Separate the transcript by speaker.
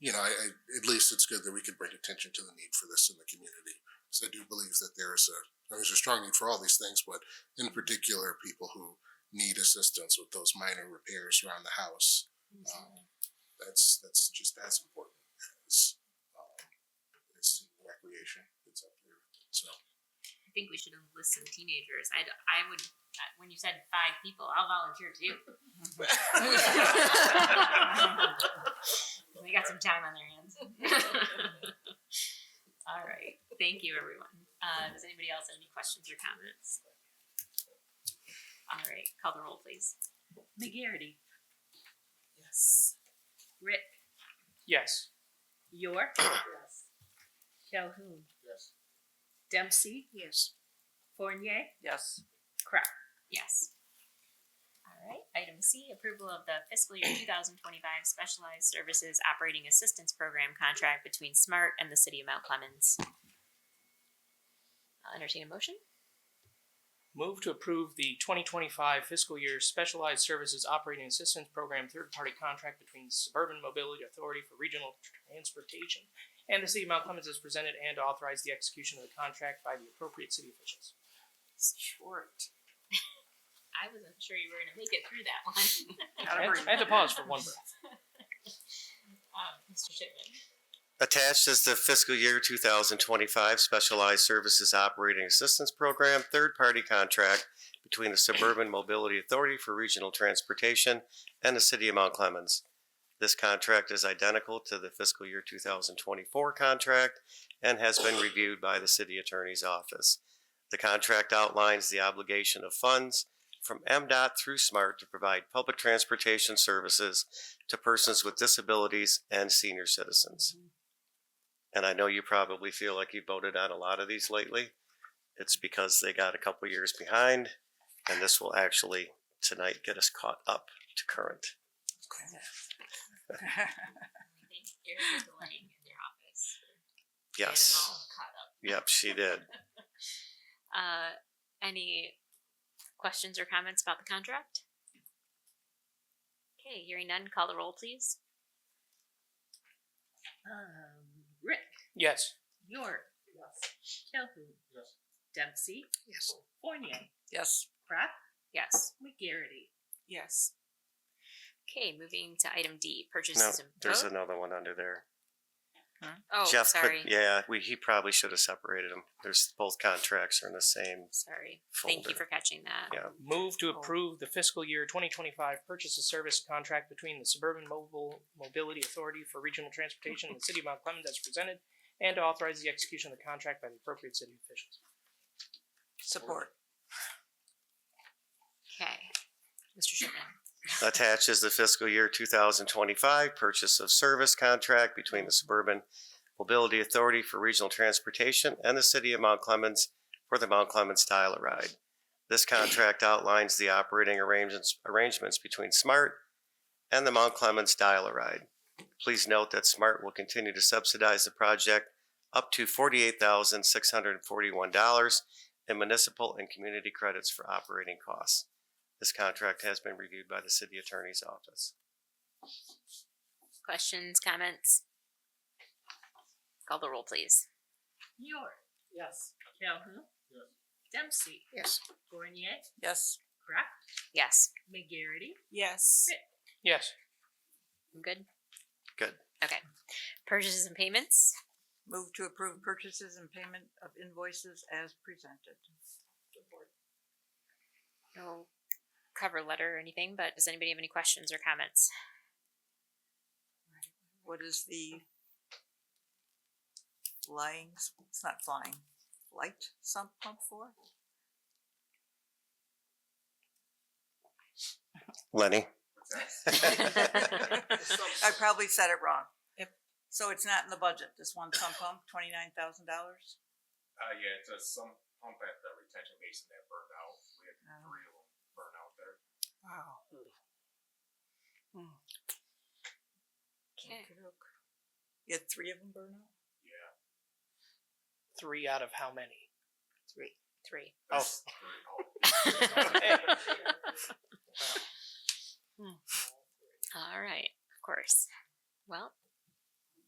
Speaker 1: you know, I, I, at least it's good that we can bring attention to the need for this in the community. Because I do believe that there is a, I mean, there's a strong need for all these things, but in particular, people who need assistance with those minor repairs around the house. Um, that's, that's just as important as, um, as recreation that's up there. So,
Speaker 2: I think we should enlist some teenagers. I'd, I would, when you said five people, I'll volunteer too. we got some time on their hands. All right. Thank you, everyone. Uh, does anybody else have any questions or comments? All right. Call the roll, please. McGarity.
Speaker 3: Yes.
Speaker 2: Rick.
Speaker 4: Yes.
Speaker 3: York?
Speaker 5: Yes.
Speaker 3: Calhoun?
Speaker 1: yes.
Speaker 3: Dempsey?
Speaker 5: Yes.
Speaker 3: Fournier?
Speaker 4: Yes.
Speaker 3: Crowd?
Speaker 2: Yes. All right. Item C, approval of the fiscal year 2025 Specialized Services Operating Assistance Program contract between SMART and the City of Mount Clemens. I'll entertain a motion.
Speaker 4: Move to approve the 2025 fiscal year Specialized Services Operating Assistance Program third-party contract between Suburban Mobility Authority for Regional Transportation and the City of Mount Clemens as presented and to authorize the execution of the contract by the appropriate city officials.
Speaker 3: Short.
Speaker 2: I wasn't sure you were going to make it through that one.
Speaker 4: I had- I had to pause for one breath.
Speaker 2: Um, Mr. Shipman.
Speaker 6: Attached is the fiscal year 2025 Specialized Services Operating Assistance Program third-party contract between the Suburban Mobility Authority for Regional Transportation and the City of Mount Clemens. This contract is identical to the fiscal year 2024 contract and has been reviewed by the City Attorney's Office. The contract outlines the obligation of funds from MDOT through SMART to provide public transportation services to persons with disabilities and senior citizens and I know you probably feel like you voted on a lot of these lately. It's because they got a couple years behind, and this will actually tonight get us caught up to current.
Speaker 2: I think Eric is delaying in their office. Get 'em
Speaker 6: Yes.
Speaker 2: all caught up.
Speaker 6: Yep, she did.
Speaker 2: Uh, any questions or comments about the contract? Okay, hearing none, call the roll, please.
Speaker 3: Um, Rick?
Speaker 4: Yes.
Speaker 3: York? Yes. Calhoun?
Speaker 1: Yes.
Speaker 3: Dempsey?
Speaker 5: Yes.
Speaker 3: Fournier?
Speaker 4: Yes.
Speaker 3: Crap?
Speaker 2: Yes.
Speaker 3: McGarity?
Speaker 5: Yes.
Speaker 2: Okay, moving to item D,
Speaker 6: No,
Speaker 2: purchases. and-
Speaker 6: there's
Speaker 2: oh,
Speaker 6: another one under there.
Speaker 2: oh,
Speaker 6: Jeff put-
Speaker 2: sorry,
Speaker 6: yeah, we, he probably should have separated them. There's both contracts are in the same.
Speaker 2: sorry. Thank you
Speaker 6: folder.
Speaker 2: for catching that.
Speaker 6: Yeah.
Speaker 4: Move to approve the fiscal year 2025 purchase of service contract between the Suburban Mobile Mobility Authority for Regional Transportation and the City of Mount Clemens as presented and to authorize the execution of the contract by the appropriate city officials.
Speaker 5: Support.
Speaker 2: Okay, Mr. Shipman.
Speaker 6: Attached is the fiscal year 2025 purchase of service contract between the Suburban Mobility Authority for Regional Transportation and the City of Mount Clemens for the Mount Clemens Dial a Ride. This contract outlines the operating arrangements, arrangements between SMART and the Mount Clemens Dial a Ride. Please note that SMART will continue to subsidize the project up to $48,641 in municipal and community credits for operating costs. This contract has been reviewed by the city attorney's office.
Speaker 2: Questions, comments? Call the roll, please.
Speaker 3: York? Yes. Calhoun?
Speaker 1: Yes.
Speaker 3: Dempsey?
Speaker 5: Yes.
Speaker 3: Fournier?
Speaker 5: Yes.
Speaker 3: Crap?
Speaker 2: Yes,
Speaker 3: McGarity?
Speaker 5: Yes.
Speaker 4: Yes.
Speaker 2: I'm good.
Speaker 6: Good.
Speaker 2: Okay, purchases and payments.
Speaker 5: Move to approve purchases and payment of invoices as presented.
Speaker 2: No cover letter or anything, but does anybody have any questions or comments?
Speaker 5: What is the flying, s- it's not flying, light sump pump for?
Speaker 6: Lenny?
Speaker 5: I probably said it wrong.
Speaker 3: Yep.
Speaker 5: So it's not in the budget, this one sump pump, twenty-nine thousand dollars?
Speaker 7: Uh, yeah, it's a some pump at the retention basin that burned out. We had
Speaker 5: Oh.
Speaker 7: three of them burn out there.
Speaker 5: Wow.
Speaker 2: Okay.
Speaker 5: You had three of them burn out?
Speaker 7: Yeah.
Speaker 4: Three out of how many?
Speaker 2: Three. Three.
Speaker 4: Oh,
Speaker 7: that's three. Oh.
Speaker 2: All right, of course. Well,